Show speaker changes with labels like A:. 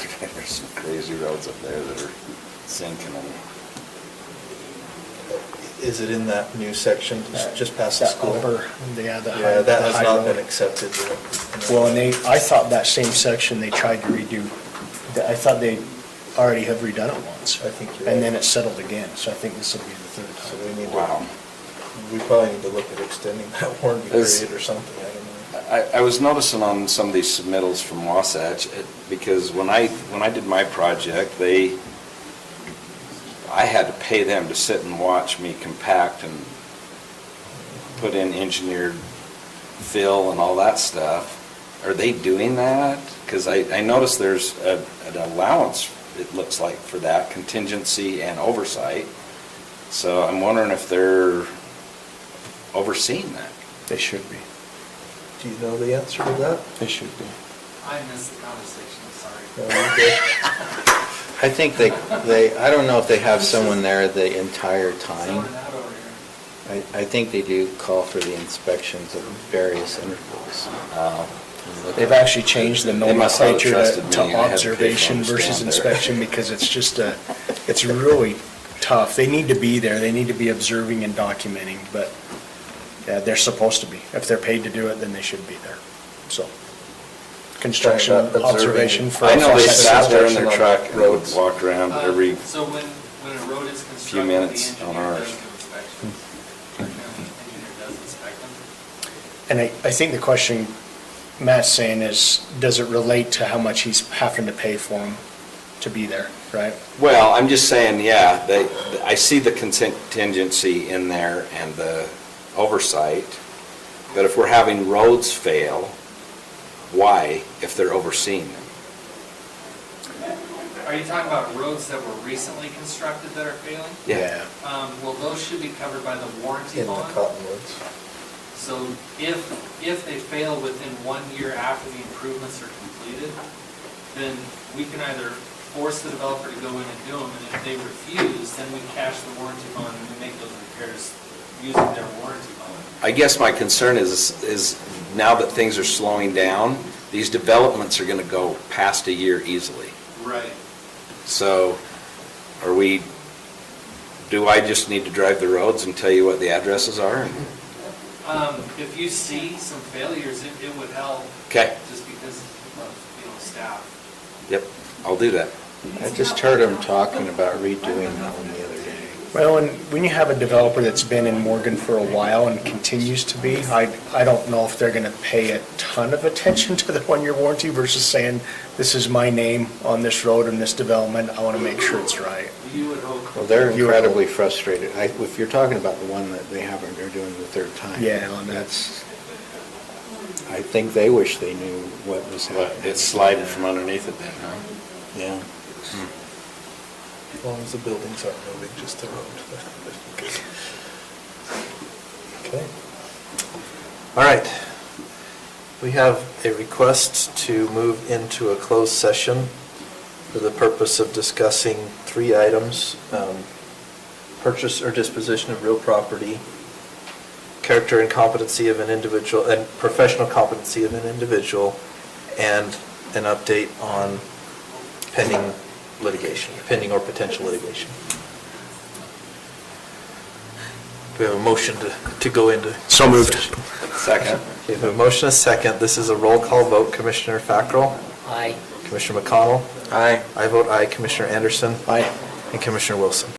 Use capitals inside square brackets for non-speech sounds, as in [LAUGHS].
A: There's some crazy roads up there that are sinking and
B: Is it in that new section, just- just past the
C: That
B: school?
C: upper, yeah, the high-
B: Yeah, that
C: the
B: has
C: high
B: not been
C: road.
B: accepted yet.
C: Well, and they, I thought that same section they tried to redo, that- I thought they already have redone it once.
B: I think you're
C: And
B: right.
C: then it settled again, so I think this will be the third
B: So
C: time.
B: we need
A: Wow.
B: to, we probably need to look at extending that [LAUGHS] warranty
A: There's-
B: period or something, I don't know.
A: I, I was noticing on some of these submittals from Wasatch, it- because when I, when I did my project, they, I had to pay them to sit and watch me compact and put in engineered fill and all that stuff. Are they doing that? Because I, I noticed there's a, an allowance, it looks like, for that contingency and oversight. So I'm wondering if they're overseeing that.
C: They should be,
B: Do you know the answer to that?
C: they should be.
D: I missed the conversation, sorry.
B: No, you did?
E: [LAUGHS] I think they, they, I don't know if they have someone there the entire time.
D: Someone out over here.
E: I, I think they do call for the inspections at various intervals.
C: They've actually changed the
A: They must not have
C: nomenclature to
A: trusted me. I had to pay for
C: to observation
A: them to
C: versus
A: stand there.
C: inspection because it's just a, it's really tough. They need to be there, they need to be observing and documenting, but yeah, they're supposed to be. If they're paid to do it, then they should be there, so. Construction
B: Sorry, but observing-
C: observation for.
A: I know they
B: Construction
A: sat there in their
B: construction
A: truck
B: on
A: and would
B: roads.
A: walk around
D: Uh,
A: every,
D: So when, when a road is
A: few
D: constructed, the
A: minutes on
D: engineer
A: ours.
D: does do inspections. Our county engineer does inspect them.
C: And I, I think the question Matt's saying is, does it relate to how much he's having to pay for him to be there, right?
A: well, I'm just saying, yeah, they, I see the contingency in there and the oversight, but if we're having roads fail, why if they're overseeing them?
D: Are you talking about roads that were recently constructed that are failing?
A: Yeah.
D: Um, well, those should be covered by the warranty
B: In the
D: bond.
B: Cottonwoods.
D: So if, if they fail within one year after the improvements are completed, then we can either force the developer to go in and do them, and if they refuse, then we cash the warranty bond and we make those repairs using their warranty bond.
A: I guess my concern is, is now that things are slowing down, these developments are gonna go past a year easily.
D: Right.
A: So are we, do I just need to drive the roads and tell you what the addresses are? and-
D: Um, if you see some failures, it, it would help,
A: Okay,
D: just because of, you know, staff.
A: yep, I'll do that.
E: I just heard them talking about redoing that one the other day.
C: Well, and when you have a developer that's been in Morgan for a while and continues to be, I, I don't know if they're gonna pay a ton of attention to the one-year warranty versus saying, this is my name on this road and this development, I wanna make sure it's right.
D: You would hope.
E: Well, they're
C: You-
E: incredibly frustrated. I, if you're talking about the one that they haven't, they're doing the third time.
C: Yeah, on that.
E: That's, I think they wish they knew what was happening.
A: It's sliding from underneath it then, huh?
E: Yeah.
B: As long as the buildings aren't moving, just the road. [LAUGHS] Okay. All right. We have a request to move into a closed session for the purpose of discussing three items. um, Purchase or disposition of real property, character and competency of an individual, and professional competency of an individual, and an update on pending litigation, pending or potential litigation. We have a motion to, to go into.
C: So moved.
A: Second.
B: Okay, we have a motion, a second. This is a roll call vote. Commissioner Fackrell? Aye. Commissioner McConnell? Aye. I vote aye. Commissioner Anderson? Aye. And Commissioner Wilson?